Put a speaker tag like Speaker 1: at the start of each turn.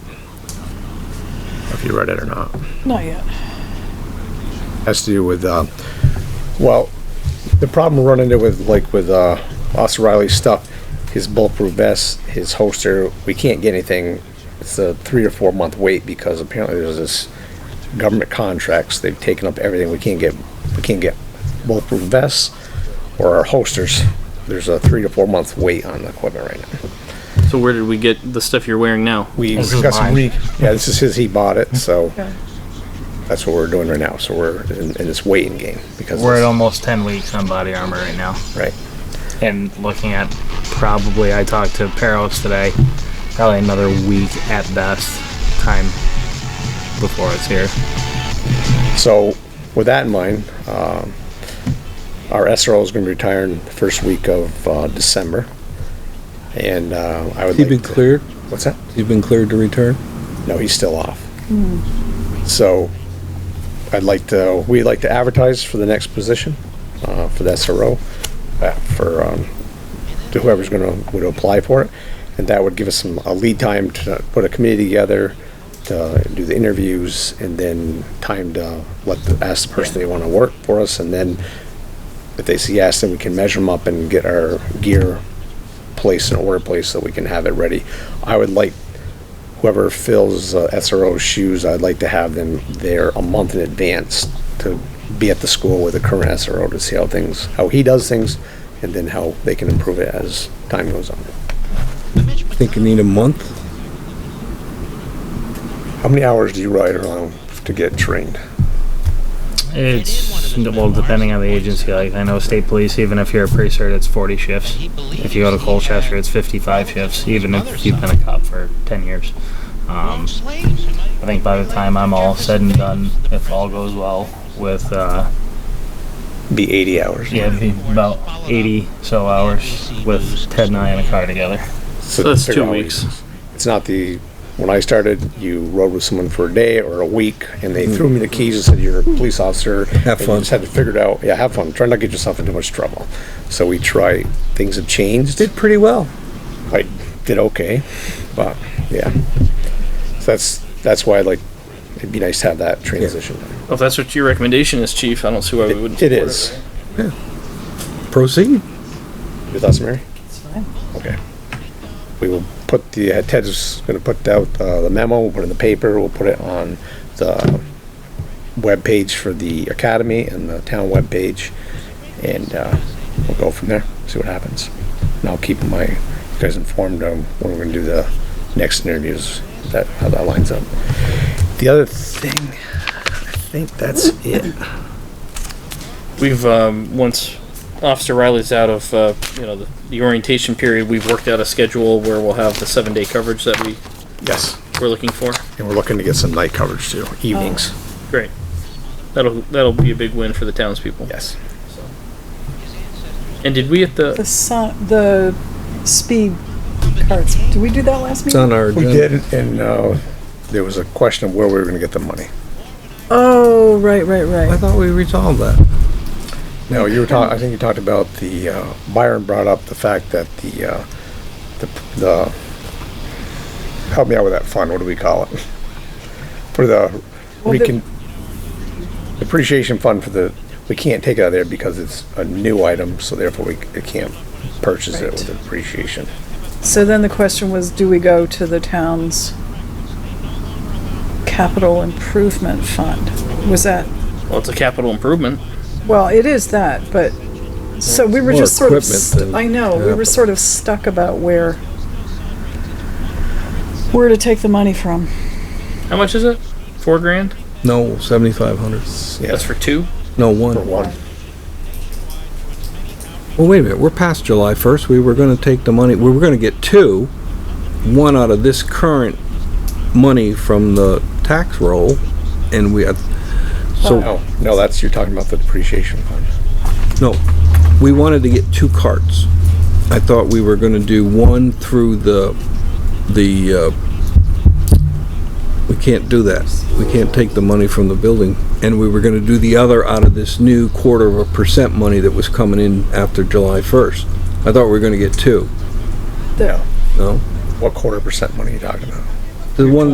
Speaker 1: if you read it or not.
Speaker 2: Not yet.
Speaker 3: has to do with, uh, well, the problem we're running into with, like, with, uh, Austin Riley's stuff, his bulletproof vest, his holster, we can't get anything. It's a three or four month wait because apparently there's this government contracts, they've taken up everything. We can't get, we can't get bulletproof vests or our holsters. There's a three to four month wait on the equipment right now.
Speaker 4: So where did we get the stuff you're wearing now?
Speaker 3: We
Speaker 5: This is
Speaker 3: got some
Speaker 5: mine.
Speaker 3: re, yeah, this is his, he bought it, so
Speaker 2: Okay.
Speaker 3: that's what we're doing right now. So we're in, in this waiting game because,
Speaker 5: We're at
Speaker 3: it's-
Speaker 5: almost 10 weeks on body armor right now.
Speaker 3: right.
Speaker 5: And looking at probably, I talked to Peros today, probably another week at best time before it's here.
Speaker 3: So, with that in mind, um, our SRO is going to be retiring the first week of uh, December, and uh, I would.
Speaker 6: He
Speaker 3: like
Speaker 6: been
Speaker 3: to-
Speaker 6: cleared?
Speaker 3: What's that?
Speaker 6: He's been cleared to return?
Speaker 3: No, he's still off. So, I'd like to. We'd like to advertise for the next position uh, for the SRO, uh, for um, to whoever's going to would apply for it, and that would give us some a lead time to put a committee together. To do the interviews and then time to let the, ask the person they want to work for us, and then if they say yes, then we can measure them up and get our gear placed in order placed so we can have it ready. I would like whoever fills uh, SRO's shoes, I'd like to have them there a month in advance to be at the school with the current SRO to see how things, how he does things, and then how they can improve it as time goes on.
Speaker 6: Think you need a month?
Speaker 3: How many hours do you ride around to get trained?
Speaker 5: It's, well, depending on the agency, like I know state police, even if you're a pre-cert, it's 40 shifts. If you go to Colchester, it's 55 shifts, even if you've been a cop for 10 years. Um, I think by the time I'm all said and done, if all goes well with, uh,
Speaker 3: Be 80 hours.
Speaker 5: Yeah, it'd be about 80 so hours with Ted and I in a car together.
Speaker 3: So
Speaker 4: So that's
Speaker 3: figure
Speaker 4: two
Speaker 3: out-
Speaker 4: weeks.
Speaker 3: It's not the, when I started, you rode with someone for a day or a week, and they threw me the keys and said, you're a police officer. And
Speaker 6: Have
Speaker 3: you
Speaker 6: fun.
Speaker 3: just had to figure it out. Yeah, have fun. Try not to get yourself into much trouble. So we try, things have changed.
Speaker 6: Did pretty well.
Speaker 3: I did okay, but yeah. So that's, that's why I'd like, it'd be nice to have that transition.
Speaker 4: Well, if that's what your recommendation is, chief, I don't see why we wouldn't.
Speaker 3: It is.
Speaker 4: support
Speaker 6: Proceed.
Speaker 3: With us, Mary?
Speaker 2: fine.
Speaker 3: Okay. We will put the, uh, Ted's gonna put out uh, the memo, we'll put it in the paper, we'll put it on the webpage for the academy and the town webpage, and, uh, we'll go from there, see what happens. And I'll keep my, you guys informed on when we're gonna do the next interviews, that, how that lines up. The other thing, I think that's it.
Speaker 4: We've um, once Officer Riley's out of uh, you know the, the orientation period, we've worked out a schedule where we'll have the seven day coverage that we
Speaker 3: Yes,
Speaker 4: we're looking for.
Speaker 3: and we're looking to get some night coverage too, evenings,
Speaker 4: Great. That'll that'll be a big win for the townspeople.
Speaker 3: yes.
Speaker 4: And did we at
Speaker 2: The
Speaker 4: the
Speaker 2: son, the speed carts. Did we do that last
Speaker 6: It's
Speaker 2: meeting?
Speaker 6: on our
Speaker 3: We
Speaker 6: agenda.
Speaker 3: did, and, uh, there was a question of where we were gonna get the money.
Speaker 2: Oh, right, right,
Speaker 6: I
Speaker 2: right.
Speaker 6: thought we resolved that.
Speaker 3: No, you were talking, I think you talked about the, uh, Byron brought up the fact that the, uh, the, the, help me out with that fund, what do we call it? For the
Speaker 2: Well, the-
Speaker 3: recon, depreciation fund for the, we can't take it out of there because it's a new item, so therefore we, c- it can't purchase it with depreciation.
Speaker 2: So then the question was, do we go to the town's capital improvement fund? Was that,
Speaker 4: well, it's a capital improvement.
Speaker 2: well, it is that, but, so we were
Speaker 6: More
Speaker 2: just sort of,
Speaker 6: equipment
Speaker 2: st-
Speaker 6: than
Speaker 2: I know, we were
Speaker 6: capital.
Speaker 2: sort of stuck about where, where to take the money from.
Speaker 4: How much is it? Four grand.
Speaker 6: No, seventy-five hundred.
Speaker 3: Yeah,
Speaker 4: That's for two.
Speaker 6: No,
Speaker 3: for
Speaker 6: one.
Speaker 3: one,
Speaker 6: Well, wait a minute, we're past July first, we were gonna take the money, we were gonna get two, one out of this current money from the tax roll, and we, had- so,
Speaker 3: no, no, that's, you're talking about the depreciation fund.
Speaker 6: no, we wanted to get two carts. I thought we were gonna do one through the, the, uh, we can't do that, we can't take the money from the building, and we were gonna do the other out of this new quarter of a percent money that was coming in after July first. I thought we were gonna get two,
Speaker 2: The-
Speaker 3: No,
Speaker 6: no?
Speaker 3: what quarter percent money are you talking about?
Speaker 6: The one